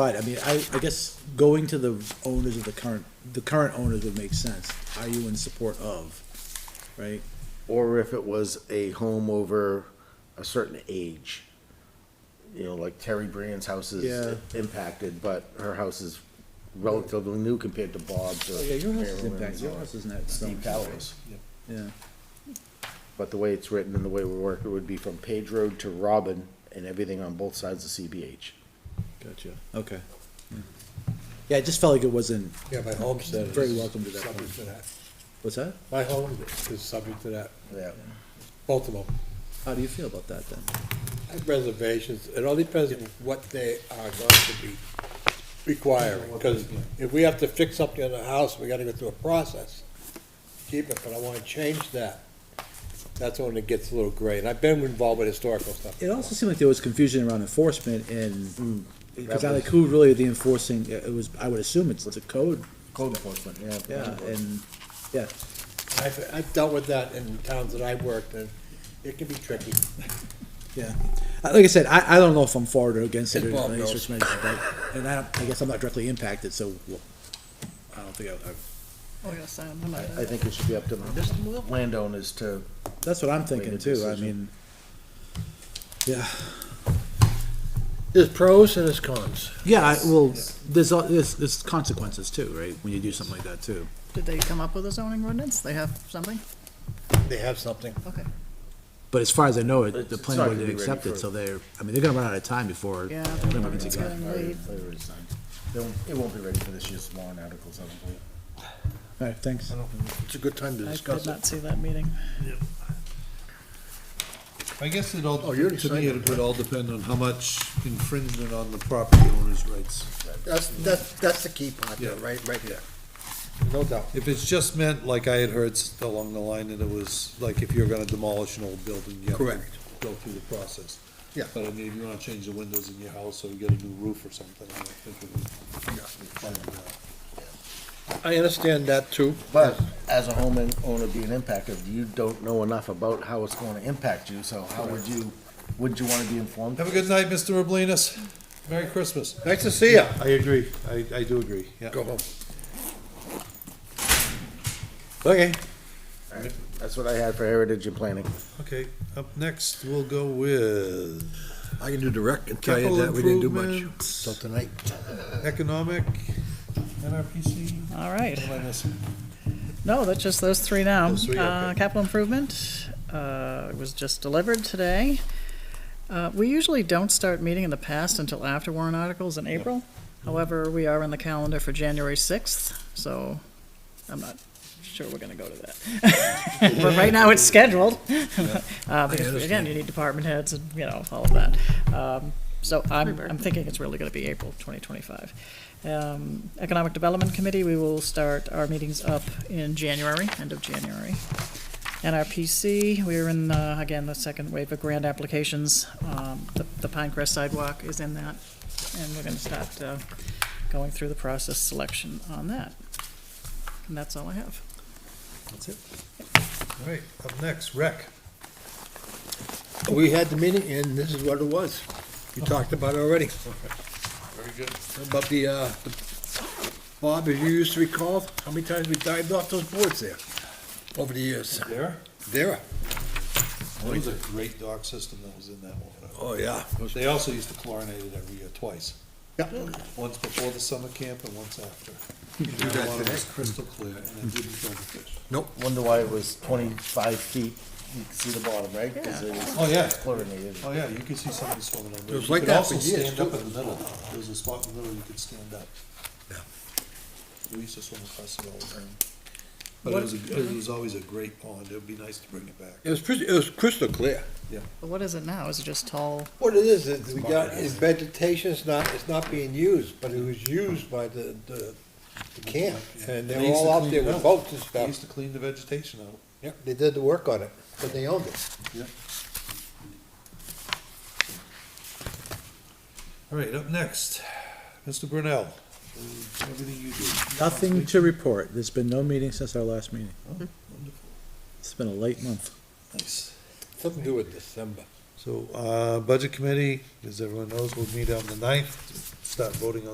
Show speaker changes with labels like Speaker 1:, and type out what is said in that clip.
Speaker 1: But, I mean, I, I guess going to the owners of the current, the current owners would make sense. Are you in support of, right?
Speaker 2: or if it was a home over a certain age. You know, like Terry Brand's house is
Speaker 1: Yeah.
Speaker 2: impacted, but her house is relatively new compared to Bob's or
Speaker 1: Oh, yeah, your house is
Speaker 2: Marilyn's
Speaker 1: impacted, your
Speaker 2: or
Speaker 1: house isn't that
Speaker 2: Steve
Speaker 1: so-
Speaker 2: Callow's.
Speaker 1: Yeah,
Speaker 2: But the way it's written and the way we work, it would be from Page Road to Robin and everything on both sides of CBH.
Speaker 1: gotcha, okay. Yeah. Yeah, it just felt like it wasn't,
Speaker 3: Yeah, my homestead is.
Speaker 1: Very welcome to that
Speaker 3: Subject to that.
Speaker 1: what's that?
Speaker 3: My home is subject to that,
Speaker 2: Yeah.
Speaker 3: both of them.
Speaker 1: How do you feel about that then?
Speaker 3: I have reservations, it all depends on what they are going to be requiring, because if we have to fix something in the house, we gotta go through a process. Keep it, but I wanna change that. That's when it gets a little gray, and I've been involved with historical stuff.
Speaker 1: It also seemed like there was confusion around enforcement and, because I
Speaker 2: That
Speaker 1: like
Speaker 2: was-
Speaker 1: who really the enforcing, it was, I would assume it's, it's a code,
Speaker 2: Code enforcement, yeah.
Speaker 1: yeah, and, yeah.
Speaker 3: I've, I've dealt with that in towns that I worked in, it can be tricky.
Speaker 1: Yeah, Uh, like I said, I, I don't know if I'm for it or against it,
Speaker 3: And
Speaker 1: or
Speaker 3: Bob
Speaker 1: anything, it's
Speaker 3: knows.
Speaker 1: just mentioned, but- and I, don't- I guess I'm not directly impacted, so well, I don't think I, I-
Speaker 4: Oh, yes, I am. I'm not-
Speaker 2: I think it should be up to the landowners to,
Speaker 1: that's what I'm thinking
Speaker 2: Make a
Speaker 1: too, I
Speaker 2: decision.
Speaker 1: mean, yeah,
Speaker 3: There's pros and there's cons.
Speaker 1: yeah, I, well, there's, al- there's, there's consequences too, right, when you do something like that too.
Speaker 4: Did they come up with a zoning ordinance? They have something?
Speaker 3: They have something.
Speaker 4: Okay,
Speaker 1: But as far as I know, it-
Speaker 2: It's-
Speaker 1: the
Speaker 2: it's
Speaker 1: plan
Speaker 2: not
Speaker 1: board
Speaker 2: gonna
Speaker 1: didn't
Speaker 2: be
Speaker 1: accept
Speaker 2: ready
Speaker 1: it,
Speaker 2: for-
Speaker 1: so they're, I mean, they're gonna run out of time before.
Speaker 4: yeah.
Speaker 1: they're gonna be
Speaker 4: It's
Speaker 1: together.
Speaker 4: getting
Speaker 2: already-
Speaker 4: late.
Speaker 2: they already signed. They won't- It won't be ready for this year's warrant articles, I don't believe.
Speaker 1: All right, thanks.
Speaker 3: It's a good time to
Speaker 4: I did not see that meeting.
Speaker 5: I guess it all,
Speaker 3: Oh, you already
Speaker 5: to
Speaker 3: signed
Speaker 5: me,
Speaker 3: it,
Speaker 5: it would all depend on how much infringement on the property owner's rights.
Speaker 3: That's, that's, that's the key part, there,
Speaker 5: Yeah.
Speaker 3: right, right there. No doubt.
Speaker 5: If it's just meant, like I had heard s- along the line, that it was, like, if you're gonna demolish an old building, you have to
Speaker 3: Correct.
Speaker 5: go through the process.
Speaker 3: Yeah.
Speaker 5: But I mean, if you wanna change the windows in your house, or you get a new roof or something, I think it would.
Speaker 3: I understand that too.
Speaker 2: But as a homeowner being impacted, you don't know enough about how it's going to impact you, so how would you, would you want to be informed?
Speaker 5: Have a good night, Mr. Roblinus. Merry Christmas.
Speaker 3: Nice to see you.
Speaker 5: I agree, I, I do agree, yeah.
Speaker 3: Go home. Okay.
Speaker 2: That's what I had for heritage and planning.
Speaker 5: Okay, up next, we'll go with
Speaker 3: I can do direct and
Speaker 5: tell you that we didn't do much
Speaker 3: till tonight.
Speaker 5: economic, NRPC,
Speaker 4: All right.
Speaker 5: what am I missing?
Speaker 4: No, that's just those three now.
Speaker 5: Those three,
Speaker 4: Uh,
Speaker 5: okay.
Speaker 4: Capital improvement uh, was just delivered today. Uh, We usually don't start meeting in the past until after warrant articles in April. However, we are on the calendar for January 6th, so I'm not sure we're going to go to that. But right now, it's scheduled. Uh, Because again, you need department heads and, you know, all of that. Um, So I'm, I'm thinking it's really going to be April 2025. Um, Economic Development Committee, we will start our meetings up in January, end of January. NRPC, we're in, uh, again, the second wave of grant applications. Um, The the Pinecrest sidewalk is in that, and we're going to start uh, going through the process selection on that. And that's all I have.
Speaker 5: All right, up next, rec.
Speaker 3: We had the meeting and this is what it was. You talked about it already.
Speaker 5: Very good.
Speaker 3: About the, uh, the- Bob, as you used to recall, how many times we dived off those boards there over the years.
Speaker 5: There?
Speaker 3: There.
Speaker 5: That was a great dock system that was in that water.
Speaker 3: Oh, yeah.
Speaker 5: They also used to chlorinate it every year twice,
Speaker 3: Yeah.
Speaker 5: once before the summer camp and once after.
Speaker 3: do that
Speaker 5: That water
Speaker 3: today.
Speaker 5: was crystal clear and it didn't kill the fish.
Speaker 2: Wonder why it was twenty-five feet, you can see the bottom, right? Because it was
Speaker 5: Oh, yeah,
Speaker 2: chlorinated.
Speaker 5: oh, yeah, you could see somebody swimming in there.
Speaker 3: It was
Speaker 5: You
Speaker 3: like
Speaker 5: could
Speaker 3: that
Speaker 5: also
Speaker 3: for years,
Speaker 5: Stand up
Speaker 3: too.
Speaker 5: in the middle, there was a spot in the middle you could stand up. We used to swim across it all the time. But it was, a- it was always a great pond, it would be nice to bring it back.
Speaker 3: It was pretty, it was crystal clear.
Speaker 4: But what is it now? Is it just tall?
Speaker 3: What it is, is we got, is vegetation, it's not, it's not being used, but it was used by the, the the camp. And
Speaker 5: They
Speaker 3: they're
Speaker 5: used to
Speaker 3: all out
Speaker 5: clean
Speaker 3: there
Speaker 5: it
Speaker 3: with
Speaker 5: up.
Speaker 3: boats and
Speaker 5: They
Speaker 3: stuff.
Speaker 5: used to clean the vegetation out.
Speaker 3: Yep, they did the work on it, but they owned it.
Speaker 5: All right, up next, Mr. Brunel, uh, everything you do.
Speaker 1: Nothing to report, there's been no meeting since our last meeting. It's been a late month.
Speaker 5: Nice.
Speaker 3: Something to do with December.
Speaker 5: So, uh, Budget Committee, as everyone knows, will meet on the ninth, start voting on